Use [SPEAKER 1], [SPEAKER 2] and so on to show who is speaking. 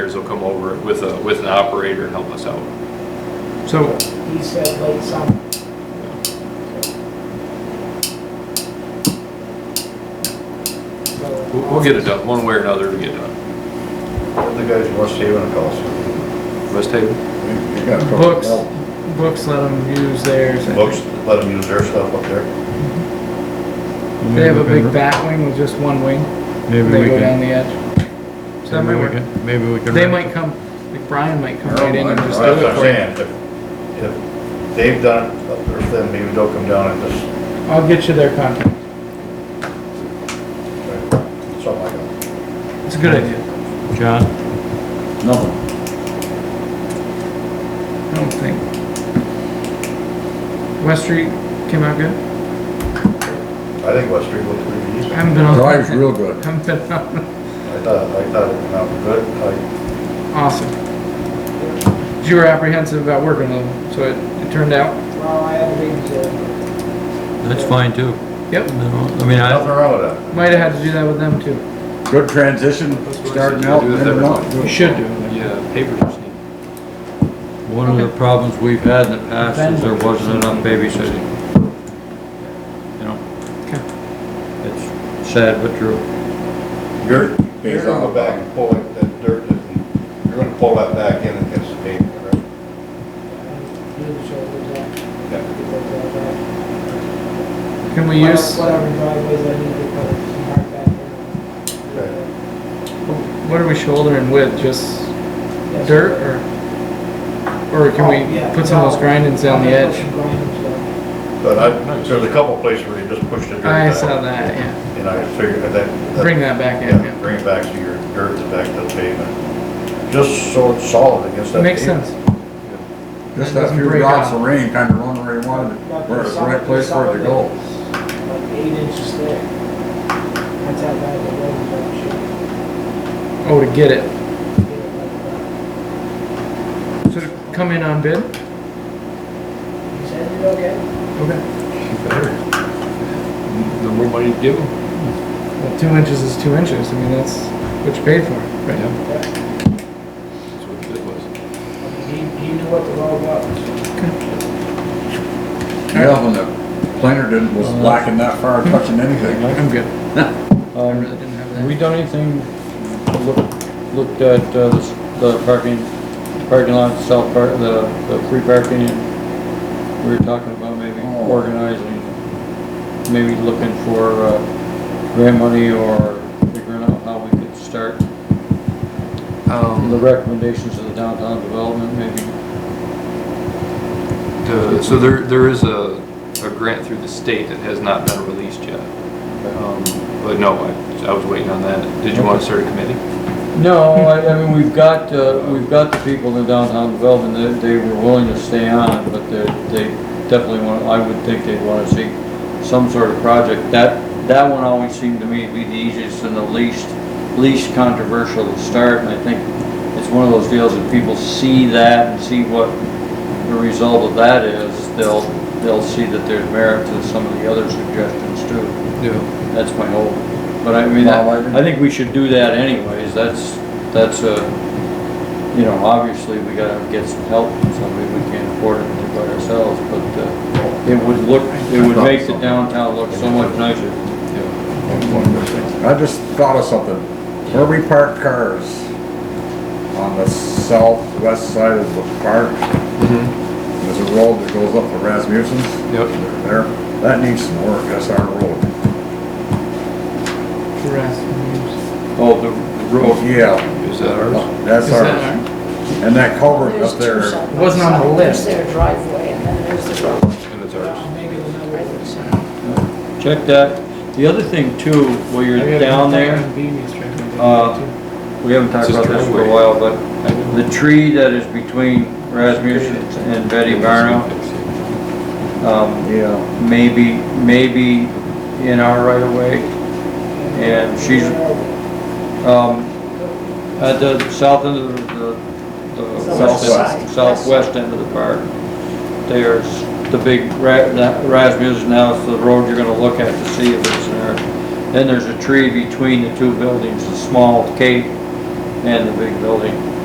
[SPEAKER 1] operators will come over with a, with an operator and help us out.
[SPEAKER 2] So,
[SPEAKER 3] He said late summer.
[SPEAKER 1] We'll, we'll get it done, one way or another, we get it done.
[SPEAKER 4] The guys from West Haven calls.
[SPEAKER 1] West Haven?
[SPEAKER 2] books, books let them use theirs.
[SPEAKER 4] Books, let them use their stuff up there.
[SPEAKER 2] They have a big bat wing with just one wing.
[SPEAKER 5] Maybe
[SPEAKER 2] They
[SPEAKER 5] we
[SPEAKER 2] go down
[SPEAKER 5] can,
[SPEAKER 2] the edge. So that might
[SPEAKER 5] maybe we
[SPEAKER 2] work.
[SPEAKER 5] can, maybe we can.
[SPEAKER 2] They
[SPEAKER 5] rent
[SPEAKER 2] might
[SPEAKER 5] it.
[SPEAKER 2] come, like Brian might come right in and
[SPEAKER 4] That's
[SPEAKER 2] just
[SPEAKER 4] what
[SPEAKER 2] do it
[SPEAKER 4] I'm
[SPEAKER 2] for you.
[SPEAKER 4] saying, if, if they've done it up there, then maybe they'll come down and just,
[SPEAKER 2] I'll get you their contact.
[SPEAKER 4] uh, something like that.
[SPEAKER 2] It's a good idea.
[SPEAKER 5] John,
[SPEAKER 6] No,
[SPEAKER 2] I don't think. West Street came out good?
[SPEAKER 4] I think West Street looked pretty
[SPEAKER 2] I
[SPEAKER 4] decent.
[SPEAKER 2] Haven't been on.
[SPEAKER 6] drive's real good.
[SPEAKER 2] Haven't been on.
[SPEAKER 4] I thought, I thought it went out good. I,
[SPEAKER 2] Awesome. You were apprehensive about working with them, so it, it turned out,
[SPEAKER 3] Well, I had to leave the,
[SPEAKER 5] that's fine too.
[SPEAKER 2] yep.
[SPEAKER 5] No, I mean,
[SPEAKER 4] nothing
[SPEAKER 5] I,
[SPEAKER 4] wrong with that.
[SPEAKER 2] Might have had to do that with them too.
[SPEAKER 6] Good transition, starting out,
[SPEAKER 1] Do it
[SPEAKER 6] ending
[SPEAKER 1] differently.
[SPEAKER 6] up.
[SPEAKER 2] You should do it.
[SPEAKER 1] Yeah, papers just need.
[SPEAKER 5] one of the problems we've had in the past is there wasn't enough babysitting. You know,
[SPEAKER 2] Okay.
[SPEAKER 5] it's sad but true.
[SPEAKER 4] You're, you're gonna go back and pull it, that dirt, that- you're gonna pull that back in against the pavement, right?
[SPEAKER 3] do the shoulders out.
[SPEAKER 4] Yeah.
[SPEAKER 3] Get that done.
[SPEAKER 2] Can we use,
[SPEAKER 3] Whatever driveways I need to put, mark that down.
[SPEAKER 2] what are we shouldering with, just
[SPEAKER 3] Yes.
[SPEAKER 2] dirt or? Or can
[SPEAKER 3] Oh, yeah.
[SPEAKER 2] we put some of those grindings down the
[SPEAKER 3] I'm gonna put
[SPEAKER 2] edge?
[SPEAKER 3] some grindings down.
[SPEAKER 4] But I, there's a couple places where you just push
[SPEAKER 1] Oh,
[SPEAKER 4] the dirt
[SPEAKER 2] I saw
[SPEAKER 4] back.
[SPEAKER 2] that, yeah.
[SPEAKER 4] And I figured that- that.
[SPEAKER 2] Bring that back in,
[SPEAKER 4] Yeah,
[SPEAKER 2] yeah.
[SPEAKER 4] bring it back to your dirt, and back to the pavement. Just so it's solid against that.
[SPEAKER 2] Makes
[SPEAKER 4] pavement.
[SPEAKER 2] sense. That
[SPEAKER 6] Just that
[SPEAKER 2] doesn't
[SPEAKER 6] few
[SPEAKER 2] break
[SPEAKER 6] drops
[SPEAKER 2] out.
[SPEAKER 6] of rain kind of run where you wanted it,
[SPEAKER 3] But
[SPEAKER 6] where
[SPEAKER 3] the
[SPEAKER 6] it's the
[SPEAKER 3] summer-
[SPEAKER 6] right
[SPEAKER 3] the
[SPEAKER 6] place for it to
[SPEAKER 3] summer
[SPEAKER 6] go.
[SPEAKER 3] days, Like eight inches thick. That's how bad the road is actually.
[SPEAKER 2] Oh, to get it. So to come in on bid?
[SPEAKER 3] He said it okay.
[SPEAKER 2] Okay.
[SPEAKER 1] Better. The more money you give them.
[SPEAKER 2] Well, two inches is two inches. I mean, that's what you paid for, right?
[SPEAKER 1] Yeah,
[SPEAKER 3] Yep.
[SPEAKER 1] That's what it was.
[SPEAKER 3] I mean, He, he knew what the road was.
[SPEAKER 6] Yeah, when the planer didn't, was
[SPEAKER 2] Uh-huh.
[SPEAKER 6] lacking that far, touching anything.
[SPEAKER 2] I'm good. I really
[SPEAKER 5] Um,
[SPEAKER 2] didn't have
[SPEAKER 5] have
[SPEAKER 2] that.
[SPEAKER 5] we done anything, look, looked at, uh, the s- the parking, parking lot, south park, the, the free parking? We were talking about maybe
[SPEAKER 6] Oh.
[SPEAKER 5] organizing, maybe looking for, uh, grant money or figuring out how we could start the
[SPEAKER 1] Um,
[SPEAKER 5] recommendations of the downtown development, maybe.
[SPEAKER 1] the, so there, there is a, a grant through the state that has not been released yet. Um, but no, I, I was waiting on that. Did you want to start a committee?
[SPEAKER 5] No, I, I mean, we've got, uh, we've got the people in downtown development, they, they were willing to stay on, but they, they definitely want, I would think they'd wanna see some sort of project. That, that one always seemed to me to be the easiest and the least, least controversial to start, and I think it's one of those deals that people see that and see what the result of that is, they'll, they'll see that there's merit to some of the other suggestions too.
[SPEAKER 1] Yeah.
[SPEAKER 5] That's my hope. But I mean,
[SPEAKER 6] Well, I didn't-
[SPEAKER 5] I I think we should do that anyways. That's, that's a, you know, obviously we gotta get some help from somebody. We can't afford it to do by ourselves, but uh, it would look, it would make the downtown look so much nicer.
[SPEAKER 6] I just thought of something. Where we park cars on the southwest side of the park,
[SPEAKER 1] Mm-hmm.
[SPEAKER 6] there's a road that goes up to Rasmussen's.
[SPEAKER 1] Yep.
[SPEAKER 6] There, that needs some work, that's our road.
[SPEAKER 2] Grass.
[SPEAKER 5] Oh, the the road.
[SPEAKER 6] Yeah,
[SPEAKER 1] Is that ours?
[SPEAKER 6] that's
[SPEAKER 2] Is
[SPEAKER 6] our,
[SPEAKER 2] that
[SPEAKER 6] and that culvert
[SPEAKER 7] There's
[SPEAKER 6] up
[SPEAKER 7] two
[SPEAKER 6] there.
[SPEAKER 7] side by
[SPEAKER 2] Wasn't on the
[SPEAKER 7] side.
[SPEAKER 2] list.
[SPEAKER 7] There's their driveway and then there's the road.
[SPEAKER 1] And it's ours.
[SPEAKER 3] Maybe the number
[SPEAKER 7] right
[SPEAKER 3] was
[SPEAKER 7] there.
[SPEAKER 5] Check that. The other thing too, while
[SPEAKER 2] our?
[SPEAKER 5] you're down there, Uh, we haven't talked
[SPEAKER 1] It's a
[SPEAKER 5] about this for a
[SPEAKER 1] driveway.
[SPEAKER 5] while, but the tree that is between Rasmussen and Betty Barno, um,
[SPEAKER 6] Yeah,
[SPEAKER 5] maybe, maybe in our right of way. And she's, um, at the south end of the, the
[SPEAKER 7] Southwest
[SPEAKER 5] southwest,
[SPEAKER 7] side.
[SPEAKER 5] southwest end of the park. There's the big ra- that Rasmussen now, it's the road you're gonna look at to see if it's there. Then there's a tree between the two buildings, the small cape and the big building.